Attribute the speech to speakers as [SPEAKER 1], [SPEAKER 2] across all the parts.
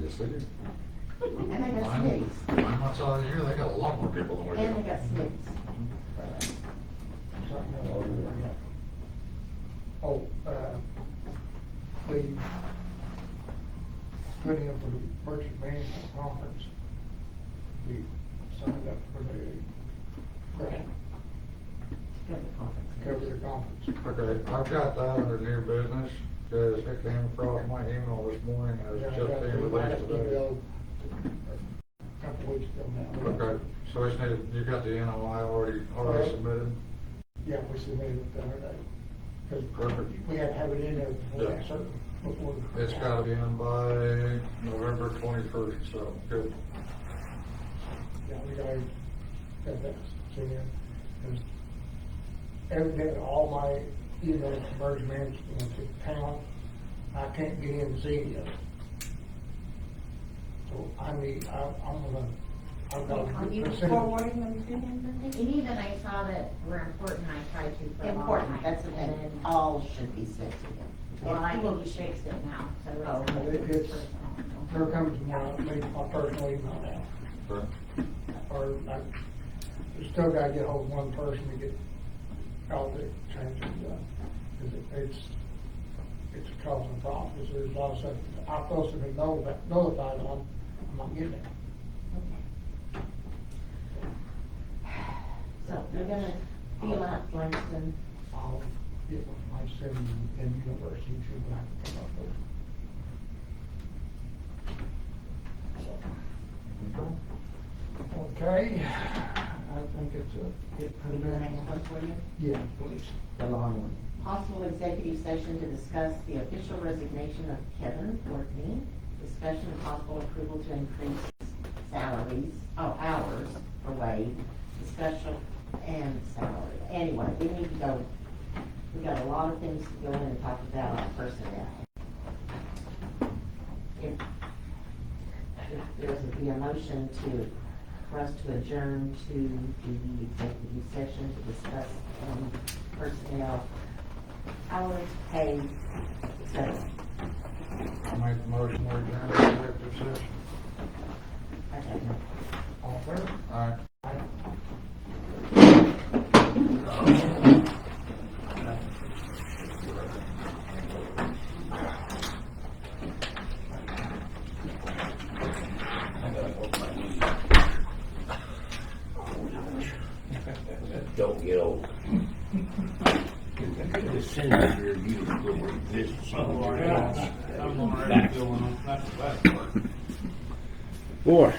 [SPEAKER 1] Yes, they do.
[SPEAKER 2] And they got
[SPEAKER 3] Mine,
[SPEAKER 2] snakes.
[SPEAKER 3] mine once out here, they got a lot more people than we
[SPEAKER 2] And they
[SPEAKER 3] do.
[SPEAKER 2] got snakes.
[SPEAKER 4] Oh, uh, the, put in for the purchase management conference. We signed up for the grant, to cover the conference.
[SPEAKER 3] Okay, I've got that under new business, cause it came across my email this morning, and
[SPEAKER 4] Yeah,
[SPEAKER 3] it's
[SPEAKER 4] I
[SPEAKER 3] just
[SPEAKER 4] got
[SPEAKER 3] being
[SPEAKER 4] the last
[SPEAKER 3] released today.
[SPEAKER 4] email a Couple weeks ago now.
[SPEAKER 3] Okay, so it's needed, you got the NOI already, already submitted?
[SPEAKER 4] Yeah, we submitted it the other day. 'Cause
[SPEAKER 3] Perfect.
[SPEAKER 4] We had to have it in there before,
[SPEAKER 3] Yeah.
[SPEAKER 4] so, before.
[SPEAKER 3] It's gotta be in by November twenty-first, so, good.
[SPEAKER 4] Yeah, we gotta get that sent in. And Evidently, all my emails to merge management to town, I can't get in Zenia. So I need, I, I'm gonna, I've got.
[SPEAKER 5] Are you forwarding them to him, Mindy?
[SPEAKER 6] Any that I saw that were important, I tried to for a long
[SPEAKER 2] Important,
[SPEAKER 6] time,
[SPEAKER 2] that's the
[SPEAKER 6] and
[SPEAKER 2] thing,
[SPEAKER 6] then-
[SPEAKER 2] all should be sent to them.
[SPEAKER 6] Well, I think he fixed it now, so it's.
[SPEAKER 2] Oh,
[SPEAKER 4] but it- it's- Here
[SPEAKER 6] personal.
[SPEAKER 4] comes my, my personal email
[SPEAKER 3] Okay.
[SPEAKER 4] now, or I, we still gotta get hold of one person to get all the changes done. 'Cause it- It's, it's causing problems, there's a lot of stuff, I'm supposed to be notified, notified on, I'm not getting it.
[SPEAKER 2] So you're gonna feel out Langston,
[SPEAKER 4] I'll get with my son in university too, but I can come up with. it. So, Okay, I think it's a, it,
[SPEAKER 2] we do the next one for you.
[SPEAKER 4] yeah, please.
[SPEAKER 1] The long one.
[SPEAKER 2] Possible executive session to discuss the official resignation of Kevin Courtney, discussion of possible approval to increase salaries, oh, hours for Wade, discussion and salary. Anyway, we need to go, we got a lot of things to go in and talk about on personnel. If, if there's a, be a motion to, for us to adjourn to the executive session to discuss, um, personnel hours, pay, et cetera.
[SPEAKER 3] I make the motion, we're adjourned to executive session.
[SPEAKER 2] Okay.
[SPEAKER 4] All in favor?
[SPEAKER 3] All right.
[SPEAKER 4] Aye.
[SPEAKER 1] Don't get old. I could have sent you here, you would have this somewhere else.
[SPEAKER 7] Boy,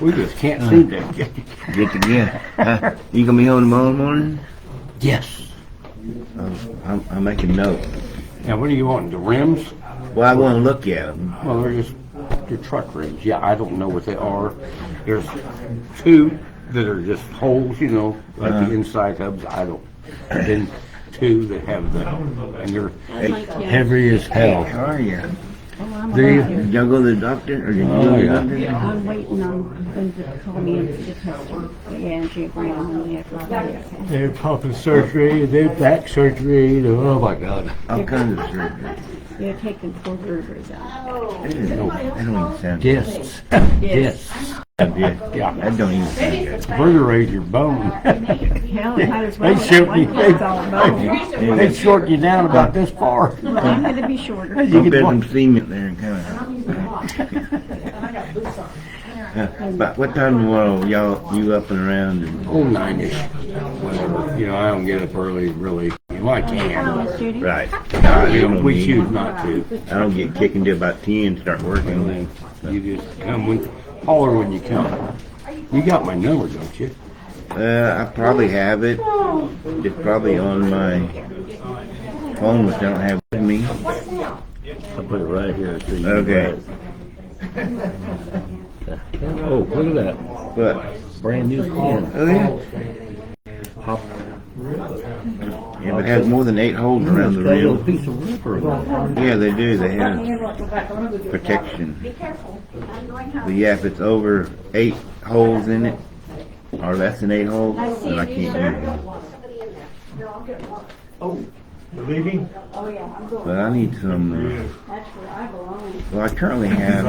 [SPEAKER 7] we just can't seem
[SPEAKER 8] Hmm.
[SPEAKER 7] to get, get together. Huh? you gonna be on tomorrow morning? Yes. Um, I'm, I'm making note.
[SPEAKER 9] Now, what do you want, the rims?
[SPEAKER 7] Well, I want to look at them.
[SPEAKER 9] Well, they're just, they're truck rims, yeah, I don't know what they are. There's two that are just holes, you know, like
[SPEAKER 8] Hmm.
[SPEAKER 9] the inside hubs, I don't. And then two that have the, and they're,
[SPEAKER 7] Heavy as hell. How are you?
[SPEAKER 5] Oh, I'm
[SPEAKER 7] Do you,
[SPEAKER 5] alive.
[SPEAKER 7] did y'all go to the doctor or did you
[SPEAKER 9] Oh,
[SPEAKER 7] go to the
[SPEAKER 9] yeah.
[SPEAKER 7] doctor?
[SPEAKER 5] I'm waiting on them to call me and get tested. Yeah, and she agreed on the after.
[SPEAKER 8] They're pumping surgery, they're back surgery, they're- oh my god.
[SPEAKER 7] All kinds of surgery.
[SPEAKER 5] They're taking four rivers out.
[SPEAKER 7] That don't, that don't even sound
[SPEAKER 8] Discs, discs.
[SPEAKER 7] good. Yeah,
[SPEAKER 9] Yeah.
[SPEAKER 7] That don't even sound good.
[SPEAKER 8] Perforate your bone.
[SPEAKER 5] Hell, it might as well.
[SPEAKER 8] They shoot
[SPEAKER 5] One
[SPEAKER 8] you.
[SPEAKER 5] kid's all about.
[SPEAKER 8] They short you down about this far.
[SPEAKER 5] Well, I'm gonna be shorter.
[SPEAKER 8] You
[SPEAKER 7] I'll
[SPEAKER 8] can
[SPEAKER 7] bet
[SPEAKER 8] walk-
[SPEAKER 7] them cement there and kind
[SPEAKER 6] I'm using a watch, and I got boots on.
[SPEAKER 7] of. Uh, But what time tomorrow y'all, you up and around and,
[SPEAKER 9] oh, nine-ish, whatever. You know, I don't get up early, really, you know, I can,
[SPEAKER 5] Miss Judy?
[SPEAKER 7] right.
[SPEAKER 9] but,
[SPEAKER 7] I
[SPEAKER 9] you know,
[SPEAKER 7] don't
[SPEAKER 9] we
[SPEAKER 7] need-
[SPEAKER 9] choose not to.
[SPEAKER 7] I don't get kicked until about ten, start working.
[SPEAKER 9] And then you just come when, holler when you come. You got my number, don't you?
[SPEAKER 7] Uh, I probably have it. It's probably on my phone, which I don't have with me.
[SPEAKER 8] I'll put it right here. so you can
[SPEAKER 7] Okay,
[SPEAKER 8] write. Oh, look at that,
[SPEAKER 7] but,
[SPEAKER 8] brand new car.
[SPEAKER 7] oh yeah,
[SPEAKER 8] Hop-
[SPEAKER 7] yeah, it has more than eight holes around the
[SPEAKER 8] Got a little
[SPEAKER 7] rim.
[SPEAKER 8] piece of rubber.
[SPEAKER 7] Yeah, they do, they have protection. But yeah, if it's over eight holes in it, or less than eight holes, then I can't use it.
[SPEAKER 8] Leaving?
[SPEAKER 7] But I need some, uh, well, I currently have